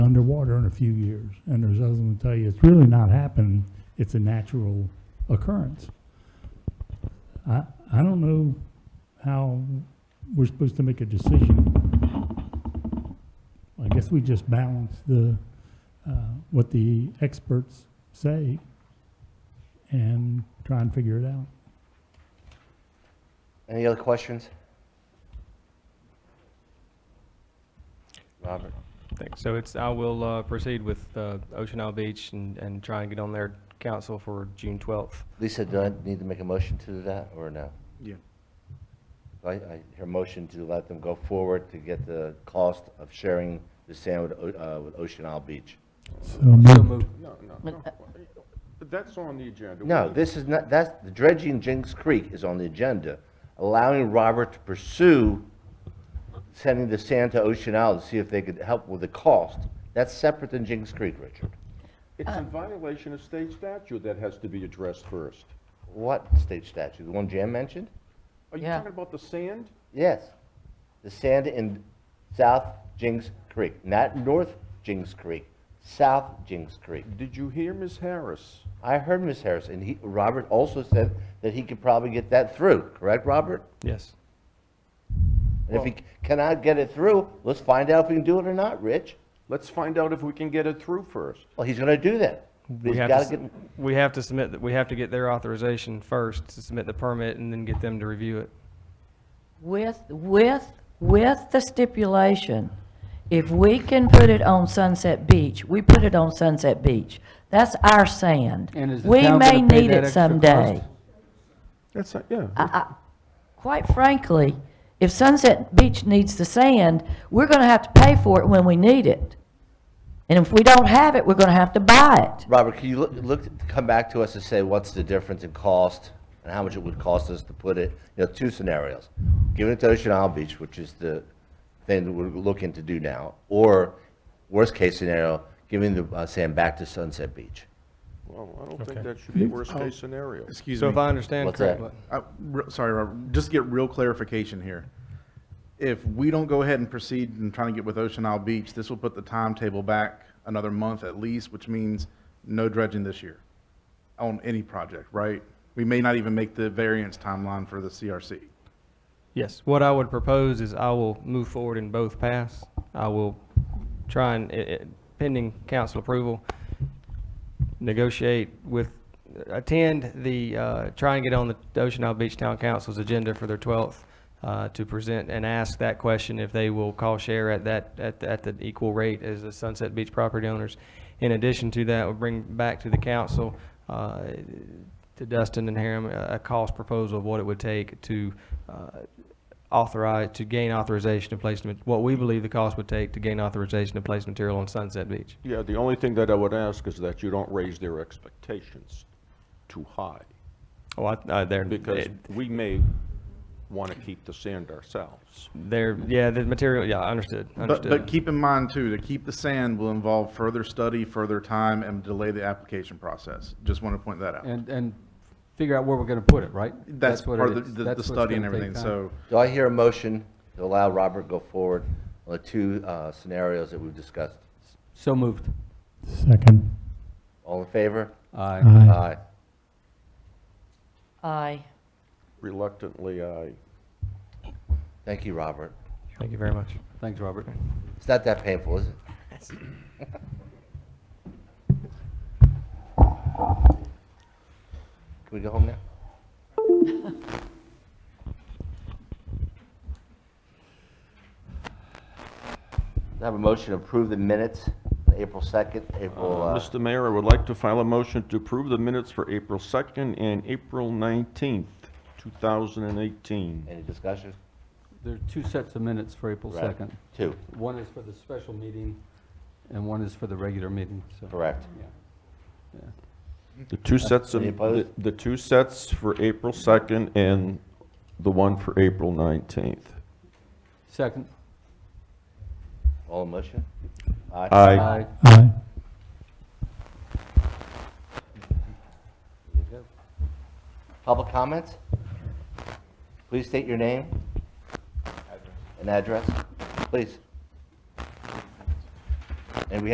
underwater in a few years. And there's others that tell you, it's really not happening, it's a natural occurrence. I, I don't know how we're supposed to make a decision. I guess we just balance the, uh, what the experts say and try and figure it out. Any other questions? Robert? Thanks. So it's, I will uh, proceed with uh, Ocean Isle Beach and, and try and get on their council for June 12th. Lisa, do I need to make a motion to do that, or no? Yeah. I, I hear motion to let them go forward to get the cost of sharing the sand with, O- uh, with Ocean Isle Beach. So moved. No, no, no. That's on the agenda. No, this is not, that's, the dredging Jinks Creek is on the agenda, allowing Robert to pursue sending the sand to Ocean Isle to see if they could help with the cost. That's separate than Jinks Creek, Richard. It's in violation of state statute that has to be addressed first. What state statute? The one Jan mentioned? Are you Yeah. talking about the sand? Yes, the sand in South Jinks Creek, not North Jinks Creek, South Jinks Creek. Did you hear Ms. Harris? I heard Ms. Harris, and he, Robert also said that he could probably get that through, correct, Robert? Yes. And if he c- cannot get it through, let's find out if we can do it or not, Rich. Let's find out if we can get it through first. Well, he's gonna do that. We He's have to, gotta s- get, we have to submit, th- we have to get their authorization first to submit the permit and then get them to review it. With, with, with the stipulation, if we can put it on Sunset Beach, we put it on Sunset Beach. That's our sand. And is the We town may gonna pay need that it extra cost? someday. That's, not- yeah. Quite frankly, if Sunset Beach needs the sand, we're gonna have to pay for it when we need it. And if we don't have it, we're gonna have to buy it. Robert, can you look, look, come back to us and say what's the difference in cost and how much it would cost us to put it, you know, two scenarios. Giving it to Ocean Isle Beach, which is the thing that we're looking to do now, or worst-case scenario, giving the uh, sand back to Sunset Beach. Well, I don't think that should be worst-case scenario. Excuse So me. if I understand What's that? correctly, I- re- Sorry, Robert, just get real clarification here. If we don't go ahead and proceed in trying to get with Ocean Isle Beach, this will put the timetable back another month at least, which means no dredging this year on any project, right? We may not even make the variance timeline for the CRC. yes, what I would propose is I will move forward in both paths. I will try and, i- i- pending council approval, negotiate with, attend the, uh, try and get on the Ocean Isle Beach Town Council's agenda for their 12th uh, to present and ask that question if they will call share at that, at, the- at the equal rate as the Sunset Beach property owners. In addition to that, we'll bring back to the council, uh, to Dustin and Harem, a a cost proposal of what it would take to uh, authorize, to gain authorization to place, ma- what we believe the cost would take to gain authorization to place material on Sunset Beach. Yeah, the only thing that I would ask is that you don't raise their expectations too high, Oh, I, I, they're, because it- we may want to keep the sand ourselves. they're, yeah, the material, yeah, understood, But, but understood. keep in mind too, to keep the sand will involve further study, further time, and delay the application process. Just want to point that out. And, and figure out where we're gonna put it, right? That's what part it of is. the- the, That's the what's study and gonna everything, take time. so. Do I hear a motion to allow Robert to go forward on the two uh, scenarios that we've discussed? So moved. Second. All in favor? Aye. Aye. Aye. Aye. Reluctantly, I, Thank you, Robert. Thank you very much. Thanks, Robert. It's not that painful, is it? Can we go home now? I have a motion to approve the minutes, April 2nd, April, Uh, uh, Mr. Mayor, I would like to file a motion to approve the minutes for April 2nd and April 19th, 2018. any discussion? There are two sets of minutes for April Right. 2nd. Two, One is for the special meeting, and one is for the regular meeting, so. correct. Yeah. The two sets of, Any the opposed? the two sets for April 2nd and the one for April 19th. Second. All in motion? Aye. Aye. Aye. Public comments? Please state your name. And address, please.